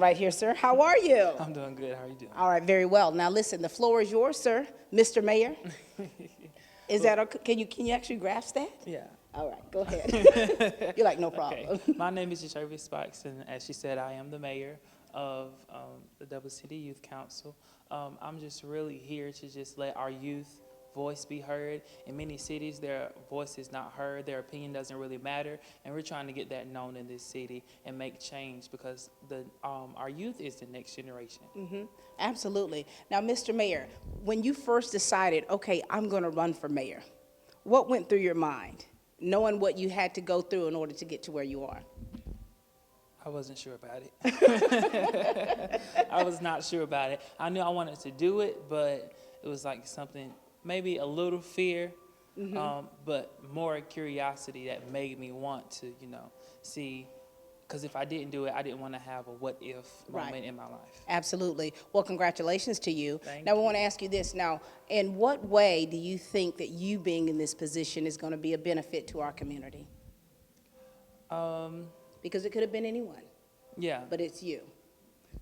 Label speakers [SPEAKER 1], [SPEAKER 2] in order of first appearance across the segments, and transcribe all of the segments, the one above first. [SPEAKER 1] Right here, sir. How are you?
[SPEAKER 2] I'm doing good. How are you doing?
[SPEAKER 1] All right, very well. Now, listen, the floor is yours, sir, Mr. Mayor. Is that, okay? can you, can you actually grasp that?
[SPEAKER 2] Yeah.
[SPEAKER 1] All right, go ahead. You're like, no problem.
[SPEAKER 2] Okay. My name is Jervis Sparks, and as she said, I am the mayor of um, the Double City Youth Council. Um, I'm just really here to just let our youth voice be heard. In many cities, their voice is not heard, their opinion doesn't really matter, and we're trying to get that known in this city and make change because the um, our youth is the next generation.
[SPEAKER 1] Mhm, Absolutely. Now, Mr. Mayor, when you first decided, okay, I'm going to run for mayor, what went through your mind, knowing what you had to go through in order to get to where you are?
[SPEAKER 2] I wasn't sure about it. I was not sure about it. I knew I wanted to do it, but it was like something, maybe a little fear,
[SPEAKER 1] Mm-hmm.
[SPEAKER 2] um, but more curiosity that made me want to, you know, see. Because if I didn't do it, I didn't want to have a what if
[SPEAKER 1] Right.
[SPEAKER 2] moment in my life.
[SPEAKER 1] Absolutely. Well, congratulations to you.
[SPEAKER 2] Thank
[SPEAKER 1] Now, we want to ask you this. Now, in what way do you think that you being in this position is going to be a benefit to our community?
[SPEAKER 2] Um,
[SPEAKER 1] Because it could have been anyone,
[SPEAKER 2] yeah.
[SPEAKER 1] but it's you.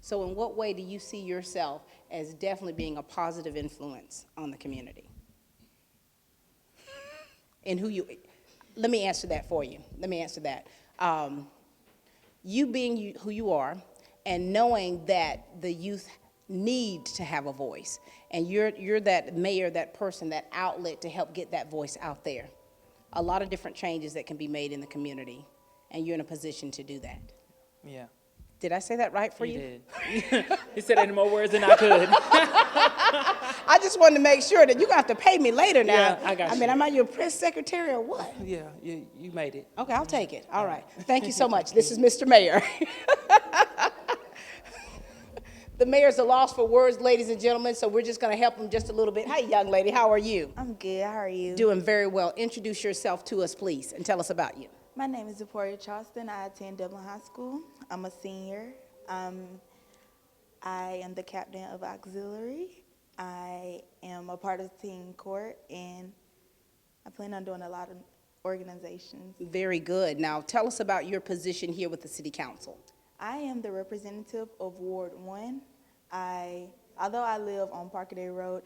[SPEAKER 1] So in what way do you see yourself as definitely being a positive influence on the community? And who you, let me answer that for you. Let me answer that. Um, you being you, who you are and knowing that the youth need to have a voice and you're, you're that mayor that person that outlet to help get that voice out there a lot of different changes that can be made in the community and you're in a position to do that
[SPEAKER 2] yeah.
[SPEAKER 1] did i say that right for you
[SPEAKER 2] You did. you said it in more words than I could.
[SPEAKER 1] i just wanted to make sure that you're going to have to pay me later now
[SPEAKER 2] Yeah, I got
[SPEAKER 1] i mean
[SPEAKER 2] you.
[SPEAKER 1] am i your press secretary or what
[SPEAKER 2] yeah, you, you made it.
[SPEAKER 1] okay i'll take it all right thank you so much this is mr mayor the mayor's a loss for words ladies and gentlemen so we're just going to help him just a little bit hi young lady how are you
[SPEAKER 3] I'm good. How are you?
[SPEAKER 1] Doing very well. Introduce yourself to us, please, and tell us about you.
[SPEAKER 3] My name is Zipporah Charleston. I attend Dublin High School. I'm a senior. Um, I am the captain of auxiliary. I am a part of teen court, and I plan on doing a lot of organizations.
[SPEAKER 1] Very good. Now, tell us about your position here with the city council.
[SPEAKER 3] I am the representative of Ward One. I, although I live on Parkaday Road,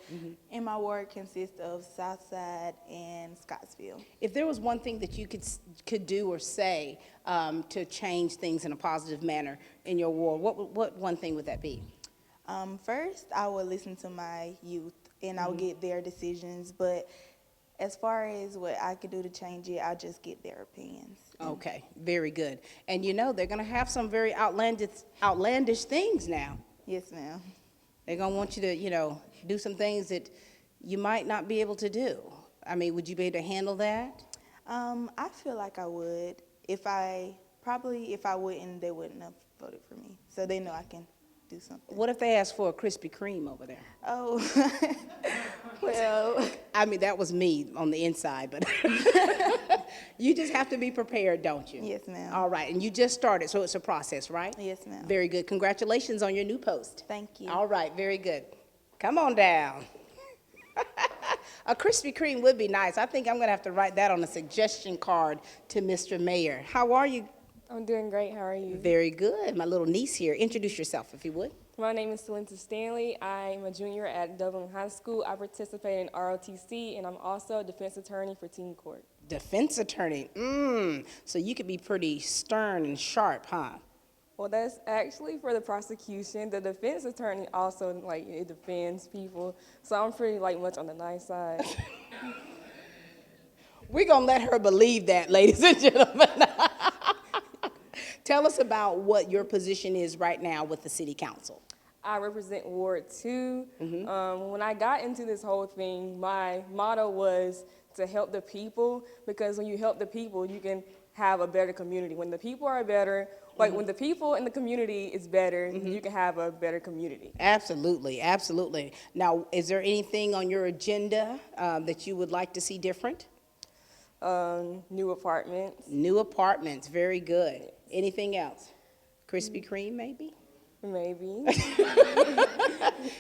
[SPEAKER 3] and my ward consists of Southside and Scottsville.
[SPEAKER 1] If there was one thing that you could, s- could do or say um, to change things in a positive manner in your ward, what, would- what one thing would that be?
[SPEAKER 3] Um, first, I will listen to my youth and I'll get their decisions. But as far as what I could do to change it, I'll just get their opinions.
[SPEAKER 1] Okay, very good. And you know, they're going to have some very outlandish, outlandish things now.
[SPEAKER 3] Yes, ma'am.
[SPEAKER 1] They're going to want you to, you know, do some things that you might not be able to do. I mean, would you be able to handle that?
[SPEAKER 3] Um, I feel like I would. If I probably if I wouldn't, they wouldn't have voted for me. So they know I can do something.
[SPEAKER 1] What if they ask for a Krispy Kreme over there?
[SPEAKER 3] Oh, well,
[SPEAKER 1] I mean, that was me on the inside, but you just have to be prepared, don't you?
[SPEAKER 3] Yes, ma'am.
[SPEAKER 1] All right, and you just started, so it's a process, right?
[SPEAKER 3] Yes, ma'am.
[SPEAKER 1] Very good. Congratulations on your new post.
[SPEAKER 3] Thank you.
[SPEAKER 1] All right, very good. Come on down. a Krispy Kreme would be nice. I think I'm going to have to write that on a suggestion card to Mr. Mayor. How are you?
[SPEAKER 4] I'm doing great. How are you?
[SPEAKER 1] Very good. My little niece here. Introduce yourself, if you would.
[SPEAKER 4] My name is Talenta Stanley. I'm a junior at Dublin High School. I participate in ROTC, and I'm also a defense attorney for Teen Court.
[SPEAKER 1] Defense attorney. Mmm. So you could be pretty stern and sharp, huh?
[SPEAKER 4] Well, that's actually for the prosecution. The defense attorney also like it defends people, so I'm pretty like much on the nice side.
[SPEAKER 1] We're going to let her believe that, ladies and gentlemen. Tell us about what your position is right now with the city council.
[SPEAKER 4] I represent Ward 2. Um, when I got into this whole thing, my motto was to help the people because when you help the people, you can have a better community. When the people are better, like when the people in the community is better, you can have a better community.
[SPEAKER 1] Absolutely, absolutely. Now, is there anything on your agenda um, that you would like to see different?
[SPEAKER 4] Um, new apartments,
[SPEAKER 1] New apartments, very good. Anything else? Krispy Kreme, maybe?
[SPEAKER 4] maybe.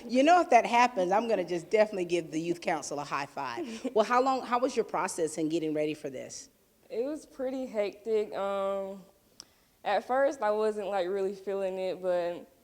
[SPEAKER 1] You know, if that happens, I'm going to just definitely give the youth council a high five. Well, how long, how was your process in getting ready for this?
[SPEAKER 4] It was pretty hectic. Um, at first, I wasn't like really feeling it, but